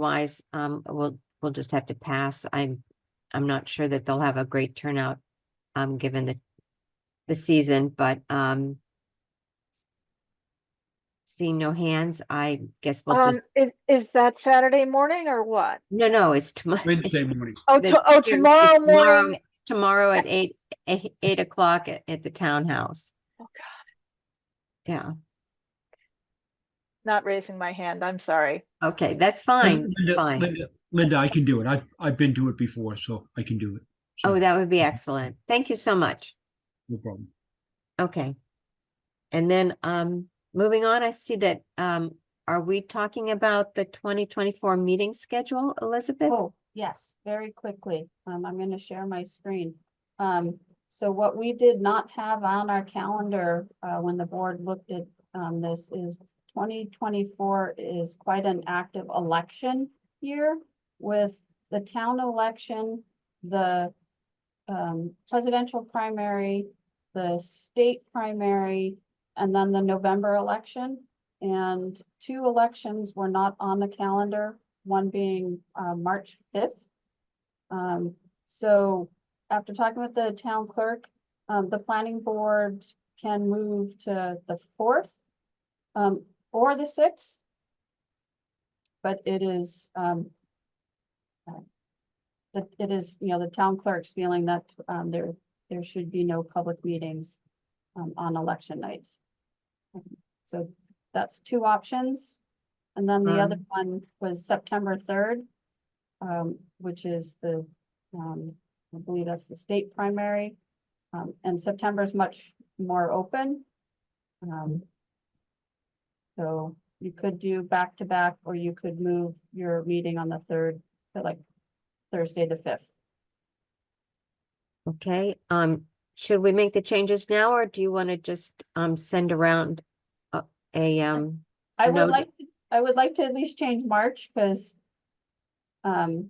Otherwise, um, we'll, we'll just have to pass. I'm, I'm not sure that they'll have a great turnout, um, given the, the season, but, um, seeing no hands, I guess we'll Um, just, is, is that Saturday morning or what? no, no, it's tomorrow. Wednesday morning. Oh, Then to- oh, there's- tomorrow it's tomorrow- morning. Tomorrow at eight, eight, eight o'clock at, at the townhouse. Oh, God, Yeah, Not raising my hand, I'm sorry. okay, that's fine, that's Linda- fine. Linda- Linda, I can do it. I've, I've been to it before, so I can do it. So, Oh, that would be excellent. Thank you so much. No problem. Okay. And then, um, moving on, I see that, um, are we talking about the twenty twenty-four meeting schedule, Elizabeth? Oh, yes, very quickly. Um, I'm gonna share my screen. Um, so what we did not have on our calendar, uh, when the board looked at, um, this is twenty twenty-four is quite an active election year with the town election, the um, presidential primary, the state primary, and then the November election. And two elections were not on the calendar, one being uh March fifth. Um, so after talking with the town clerk, um, the planning board can move to the fourth. Um, or the sixth. But it is um. uh, That it is, you know, the town clerk's feeling that um there there should be no public meetings um on election nights. Um, So that's two options. And then the other one was September third, um, which is the, um, I believe that's the state primary. Um, and September is much more open. Um, so you could do back to back, or you could move your meeting on the third to like Thursday, the fifth. Okay, um, should we make the changes now, or do you want to just, um, send around a, a, um, I would Noted. like, to I would like to at least change March, because um,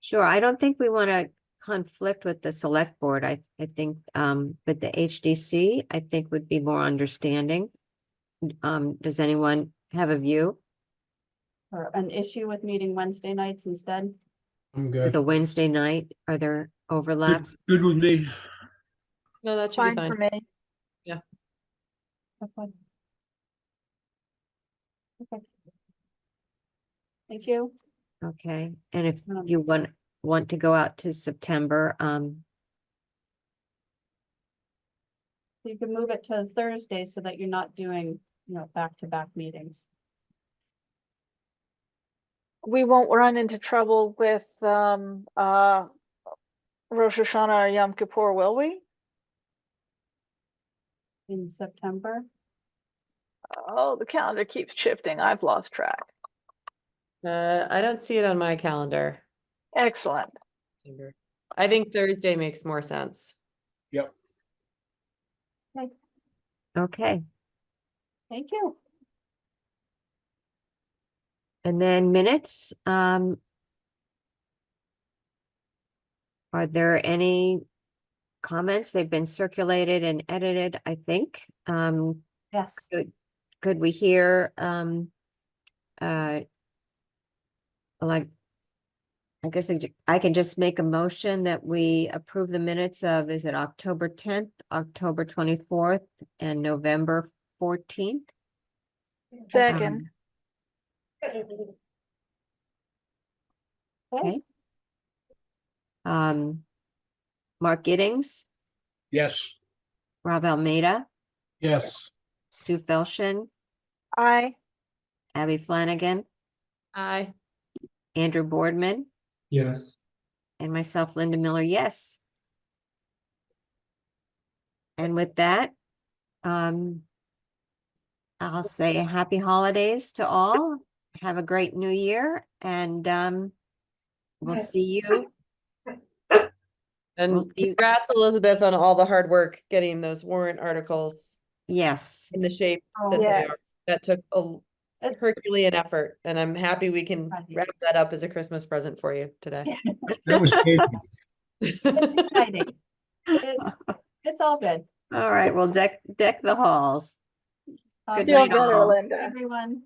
sure, I don't think we want to conflict with the select board, I, I think, um, but the HDC, I think would be more understanding. Um, does anyone have a view or an issue with meeting Wednesday nights instead. I'm with good. a Wednesday night? Are there overlaps? Good with me. No, that should be Fine for fine. me. Okay. Okay. Thank you. Okay, and if Um, you want, want to go out to September, um, You can move it to Thursday so that you're not doing, you know, back-to-back meetings. We won't run into trouble with, um, uh, Rosh Hashanah or Yom Kippur, will we? In September, Oh, the calendar keeps shifting. I've lost track. Uh, I don't see it on my calendar. Excellent. September. I think Thursday makes more sense. okay, thank you. and then minutes, um. Are there any comments? They've been circulated and edited, I think. Um, Yes, could, could we hear, um, uh. Like, I guess I ju- I can just make a motion that we approve the minutes of, is it October tenth, October twenty-fourth, and November fourteenth? Second, okay, Um, Mark Giddings, Yes. Rob Almeida, Yes, Sue Felshin, aye. Abby Flanagan, Aye. Andrew Boardman, Yes. and myself, Linda Miller, yes. And with that, um, I'll say happy holidays to all. Have a great new year and, um, we'll see you. Well, And you- congrats, Elizabeth, on all the hard work getting those warrant articles Yes, in the shape Oh, that they Yeah. are. That took a That's- Herculean effort, and I'm happy we can Right. wrap that up as a Christmas present for you today. That was Casey. exciting. It- It's all good. all right, well, deck, deck the halls. Awesome. night, Feel all. better, Linda. Everyone.